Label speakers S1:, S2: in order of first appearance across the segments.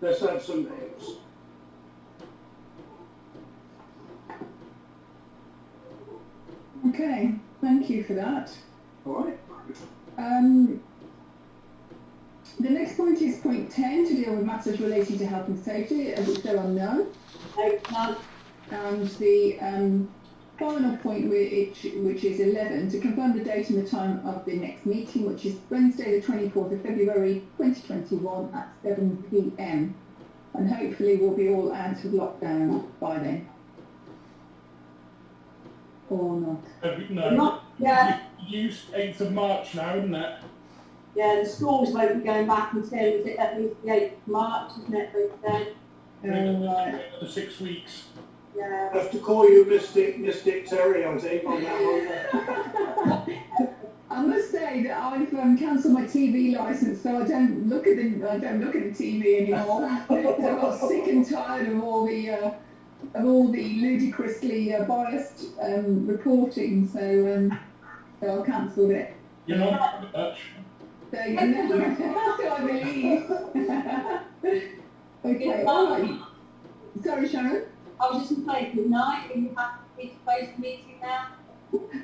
S1: Let's have some names.
S2: Okay, thank you for that.
S1: All right.
S2: Um, the next point is point 10 to deal with matters relating to health and safety, of which there are none. And the um, final point, which, which is 11, to confirm the date and the time of the next meeting, which is Wednesday, the 24th of February 2021 at 7 pm. And hopefully we'll be all out of lockdown by then. Or not.
S3: Uh, No,
S4: Not, yeah,
S3: use 8th of March now, isn't it?
S4: yeah, the schools won't be going back until, is it at least the eighth of March, isn't it, but then,
S2: Uh,
S3: Another six weeks.
S4: yeah.
S1: I have to call you Mystic, Mystic Terry, I think, on that one.
S2: I must say that I've um, cancelled my TV license, so I don't look at the I don't look at the TV anymore. I got sick and tired of all the uh, of all the ludicrously uh, biased um, reporting, so um, so I cancelled it.
S3: You're not much.
S2: So you never so I believe. okay,
S4: It's
S2: all
S4: fine.
S2: right. Sorry, Sharon.
S4: I was just gonna say, good night, and you have to be supposed to meeting now.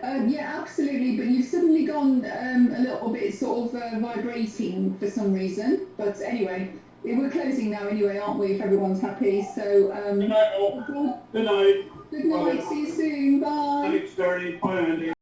S2: Um, yeah, absolutely. But you've suddenly gone um, a little bit sort of uh, vibrating for some reason. But anyway, we're closing now anyway, aren't we? If everyone's happy. So um,
S3: Good night, all.
S2: good
S1: Good night.
S2: night. See you soon. Bye.
S1: Thanks, Terry. Bye, Andy.